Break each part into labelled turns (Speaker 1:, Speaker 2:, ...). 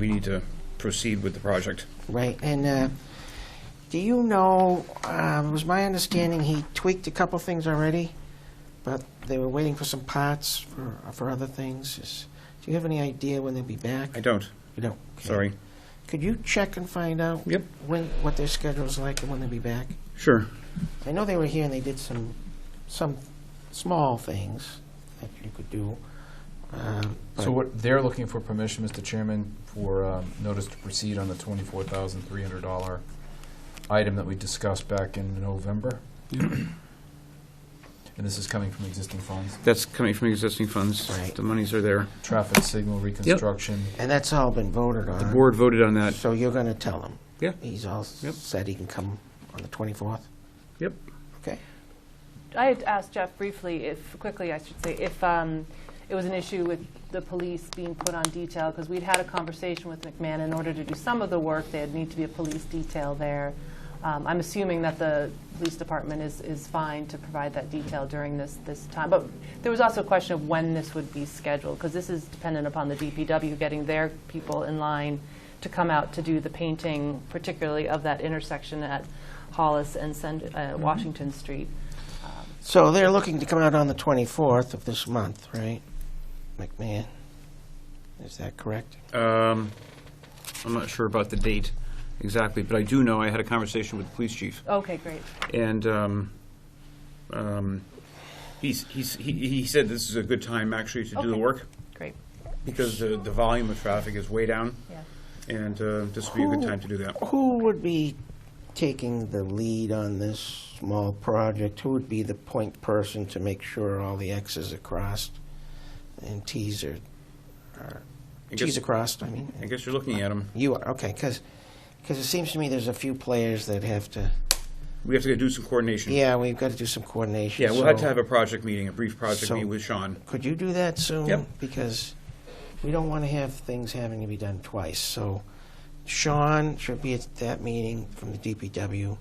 Speaker 1: we need to proceed with the project.
Speaker 2: Right, and uh, do you know, uh, it was my understanding he tweaked a couple things already, but they were waiting for some parts for, for other things. Is- Do you have any idea when they'll be back?
Speaker 1: I don't,
Speaker 2: You don't? okay.
Speaker 1: sorry.
Speaker 2: Could you check and find out?
Speaker 1: Yep.
Speaker 2: When, what their schedule's like and when they'll be back?
Speaker 1: Sure.
Speaker 2: I know they were here and they did some, some small things that you could do. um,
Speaker 3: So what, they're looking for permission, Mr. Chairman, for um, notice to proceed on the twenty-four thousand three hundred dollar item that we discussed back in November. And this is coming from existing funds,
Speaker 1: That's coming from existing funds.
Speaker 2: Right.
Speaker 1: The monies are there.
Speaker 3: traffic signal reconstruction.
Speaker 2: And that's all been voted on.
Speaker 1: The board voted on that.
Speaker 2: So you're going to tell him?
Speaker 1: Yeah.
Speaker 2: He's all
Speaker 1: Yep.
Speaker 2: said he can come on the 24th?
Speaker 1: Yep.
Speaker 2: Okay.
Speaker 4: I had asked Jeff briefly, if, quickly I should say, if um, it was an issue with the police being put on detail, because we'd had a conversation with McMahon, in order to do some of the work, there'd need to be a police detail there. Um, I'm assuming that the police department is, is fine to provide that detail during this, this time. But there was also a question of when this would be scheduled, because this is dependent upon the DPW getting their people in line to come out to do the painting, particularly of that intersection at Hollis and Send- uh, Washington Street.
Speaker 2: So they're looking to come out on the 24th of this month, right? McMahon? Is that correct?
Speaker 1: Um, I'm not sure about the date exactly, but I do know I had a conversation with the police chief,
Speaker 4: Okay, great.
Speaker 1: and um, um, he's, he's, he he said this is a good time actually to do the
Speaker 4: Okay.
Speaker 1: work,
Speaker 4: Great,
Speaker 1: because the, the volume of traffic is way down,
Speaker 4: yeah.
Speaker 1: and uh, this would be a good
Speaker 2: Who-
Speaker 1: time to do that.
Speaker 2: Who would be taking the lead on this small project? Who would be the point person to make sure all the Xs are crossed and Ts are, are-
Speaker 1: I guess-
Speaker 2: Ts are crossed, I mean?
Speaker 1: I guess you're looking at him.
Speaker 2: You are, okay, because, it seems to me there's a few players that have to,
Speaker 1: We have to do some coordination.
Speaker 2: yeah, we've got to do some coordination.
Speaker 1: Yeah, we'll have
Speaker 2: so-
Speaker 1: to have a project meeting, a brief project
Speaker 2: So-
Speaker 1: meeting with Sean.
Speaker 2: Could you do that soon?
Speaker 1: Yep.
Speaker 2: Because we don't want to have things having to be done twice. So Sean should be at that meeting from the DPW,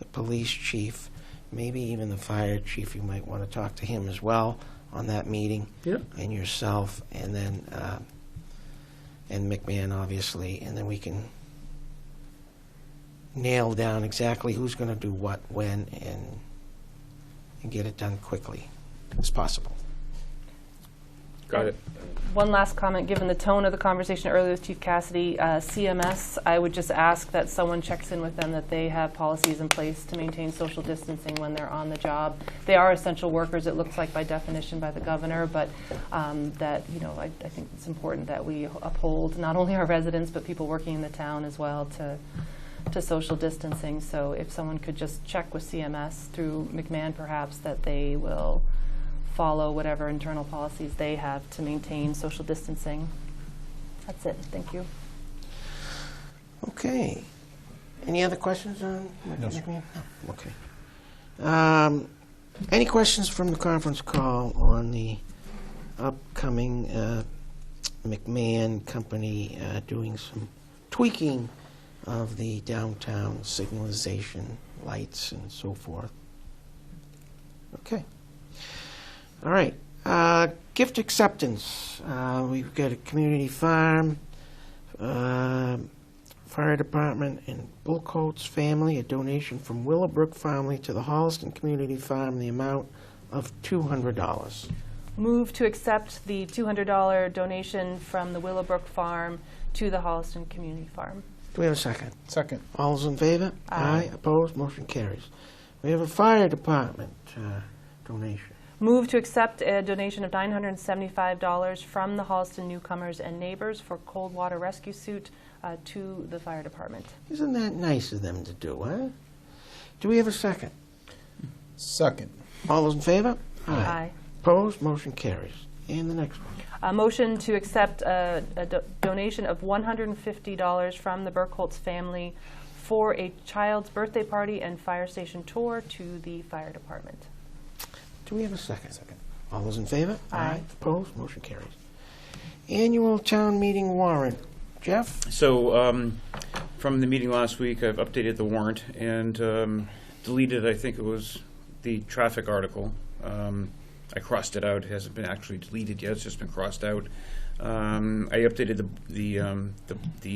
Speaker 2: the police chief, maybe even the fire chief. You might want to talk to him as well on that meeting.
Speaker 1: Yep.
Speaker 2: And yourself, and then, uh, and McMahon, obviously, and then we can nail down exactly who's going to do what, when, and, and get it done quickly as possible.
Speaker 1: Got it.
Speaker 4: One last comment, given the tone of the conversation earlier with Chief Cassidy, uh, CMS, I would just ask that someone checks in with them that they have policies in place to maintain social distancing when they're on the job. They are essential workers, it looks like by definition by the governor, but um, that, you know, I I think it's important that we uphold not only our residents, but people working in the town as well to, to social distancing. So if someone could just check with CMS through McMahon perhaps, that they will follow whatever internal policies they have to maintain social distancing. That's it, thank you.
Speaker 2: Okay. Any other questions on
Speaker 3: No, sir.
Speaker 2: McMahon? No, okay. Um, Any questions from the conference call on the upcoming uh, McMahon Company uh, doing some tweaking of the downtown signalization lights and so forth? Okay. All right. Uh, Gift acceptance. Uh, We've got a community farm. um, Fire Department and Bullcoats family, a donation from Willowbrook family to the Holliston Community Farm, the amount of $200.
Speaker 4: Move to accept the $200 donation from the Willowbrook Farm to the Holliston Community Farm.
Speaker 2: Do we have a second?
Speaker 3: Second.
Speaker 2: All's in favor?
Speaker 4: Aye.
Speaker 2: Opposed? Motion carries. We have a Fire Department uh, donation.
Speaker 4: Move to accept a donation of $975 from the Holliston Newcomers and Neighbors for cold water rescue suit uh, to the fire department.
Speaker 2: Isn't that nice of them to do, huh? Do we have a second?
Speaker 3: Second.
Speaker 2: All those in favor?
Speaker 4: Aye.
Speaker 2: Opposed? Motion carries. And the next one.
Speaker 4: A motion to accept a, a do- donation of $150 from the Burkholz family for a child's birthday party and fire station tour to the fire department.
Speaker 2: Do we have a second? All those in favor?
Speaker 4: Aye.
Speaker 2: Opposed? Motion carries. Annual town meeting warrant. Jeff?
Speaker 1: So, um, from the meeting last week, I've updated the warrant and um, deleted, I think it was the traffic article. Um, I crossed it out, it hasn't been actually deleted yet, it's just been crossed out. Um, I updated the, the, um, the- the